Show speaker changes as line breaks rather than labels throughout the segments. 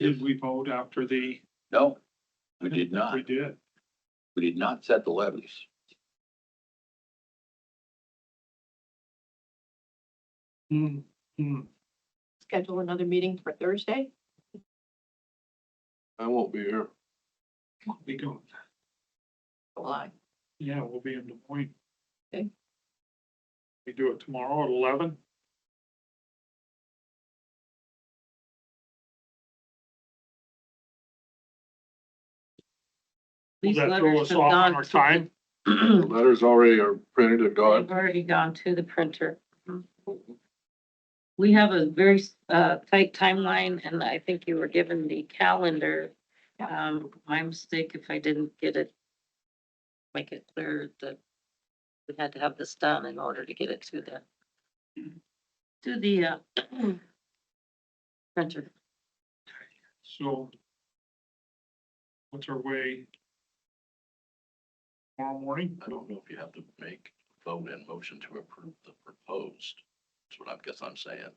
Did we vote after the?
No, we did not.
We did.
We did not set the levies.
Hmm, hmm.
schedule another meeting for Thursday?
I won't be here.
We go,
July.
yeah, we'll be in Des Moines.
Okay.
We do it tomorrow at eleven?
These
that throw us
letters have
off on
gone
our
to
time?
The
the-
letters already are printed and
They've
gone.
already gone to the printer. We have a very, uh, tight timeline and I think you were given the calendar. Um, my mistake if I didn't get it. Make it clear that we had to have this done in order to get it to the. To the, uh. Printer.
So. What's our way? Tomorrow morning?
I don't know if you have to make vote and motion to approve the proposed. That's what I guess I'm saying.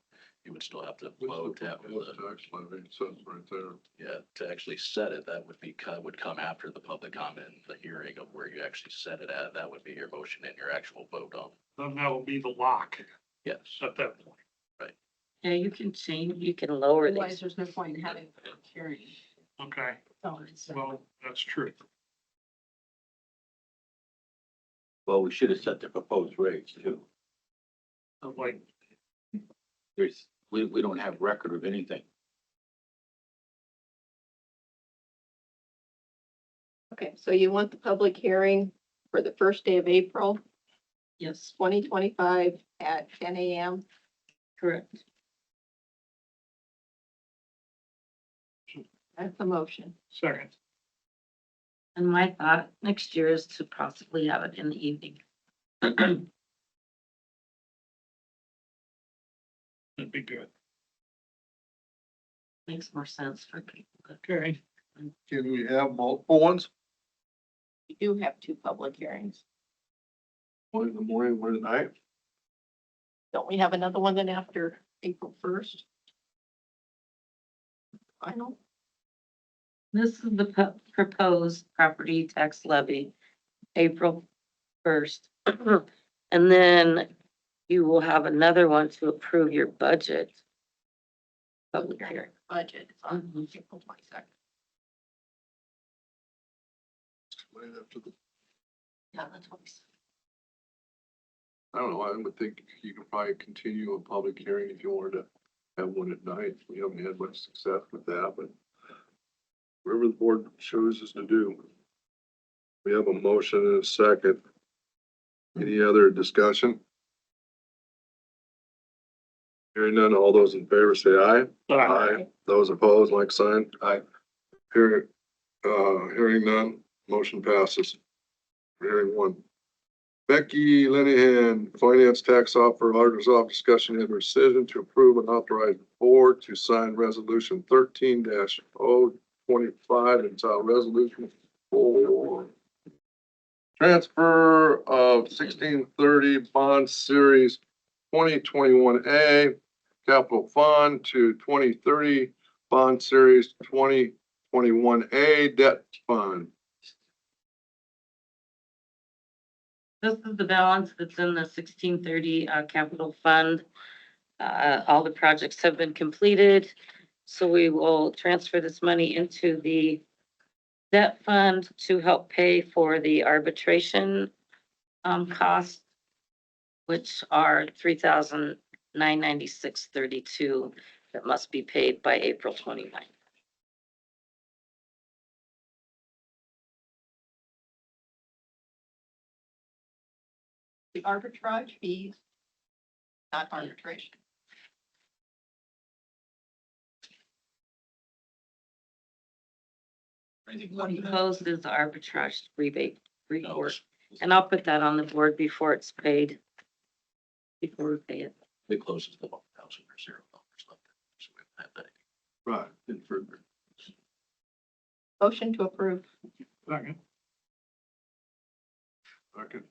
You would still have to vote to have
Proposed
the,
Tax levy, it says right there.
yeah, to actually set it, that would be, co- would come after the public comment, and the hearing of where you actually set it at. That would be your motion and your actual vote on.
Then that'll be the lock
Yes.
at that point.
Yeah, you can change, you can lower
Otherwise,
these.
there's no point in having a hearing.
Okay,
Oh, it's-
well, that's true.
Well, we should have set the proposed rates too.
But Like,
There's, we, we don't have record of anything.
Okay, so you want the public hearing for the first day of April,
Yes,
twenty twenty-five at ten AM?
correct.
That's the motion.
second,
And my thought next year is to possibly have it in the evening.
that'd be good.
Makes more sense for people. to-
Okay,
Can we have multiple ones?
You do have two public hearings.
One in the morning, one at night?
Don't we have another one then after April first? Final?
This is the pu- proposed property tax levy, April first. And then you will have another one to approve your budget. Public hearing.
Budget is on
Mhm.
April twenty-second.
Right after the,
Yeah, that's what we said.
I don't know, I would think you could probably continue a public hearing if you wanted to have one at night. We haven't had much success with that, but whatever the board chooses to do. We have a motion and a second. Any other discussion? Hearing none, all those in favor say aye.
uh,
Aye. Those opposed, like sign? Aye. Hearing, uh, hearing none, motion passes. Hearing one. Becky Linehan, Finance Tax Officer, Auditor's Office, discussion and rescission to approve and authorize board to sign resolution thirteen oh 25 entitled resolution for transfer of sixteen thirty bond series twenty twenty-one A Capital Fund to twenty thirty Bond Series twenty twenty-one A Debt Fund.
This is the balance that's in the sixteen thirty, uh, capital fund. Uh, all the projects have been completed, so we will transfer this money into the debt fund to help pay for the arbitration, um, costs, which are three thousand nine ninety-six thirty-two that must be paid by April 29th.
The arbitrage fees, not arbitration.
Proposed is the arbitrage rebate
No,
report. And I'll put that on the board before it's paid. Before we pay it.
It closes the one thousand or zero dollars left. So we have that
Right.
in further.
Motion to approve.
second.
Okay.